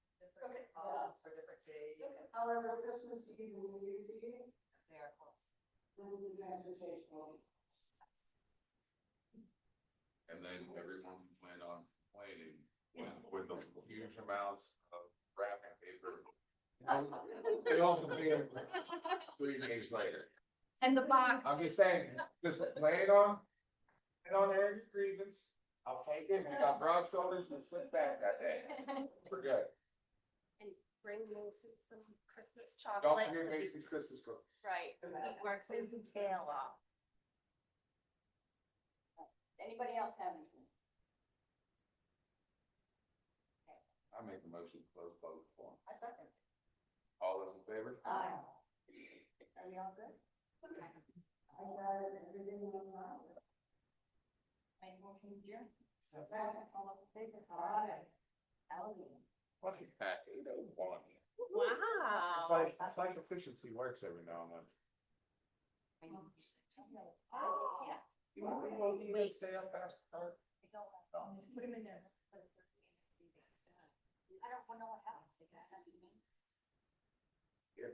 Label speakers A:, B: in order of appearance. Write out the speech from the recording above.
A: However, Christmas Eve and New Year's Eve,
B: They are close.
A: then the transfer station will be.
C: And then everyone can plan on complaining with the huge amounts of wrapping paper. Um, They all compare three days later.
D: And the box,
C: I'm just saying, just lay it on, lay it on Eric's grievance. I'll take it. We got broad shoulders and slip back that day. We're good.
D: bring Mason some Christmas
C: Don't
D: chocolate.
C: forget Macy's Christmas cookies.
B: Right, he works his tail off.
E: Anybody else have anything?
C: I make a motion to close public forum.
E: I second.
C: All those in favor?
A: Aye.
E: Are we all good?
A: I got it, everything went well.
E: Make a motion to adjourn?
A: So-
E: All those in favor? Aye. Ellie.
C: Fucking pack eight oh one. It's
D: Wow.
C: like, it's like efficiency works every now and then.
E: Oh, yeah.
C: You want me to go, you can stay up past the dark?
E: Oh. Put him in there. I don't know what happens. They can send you in.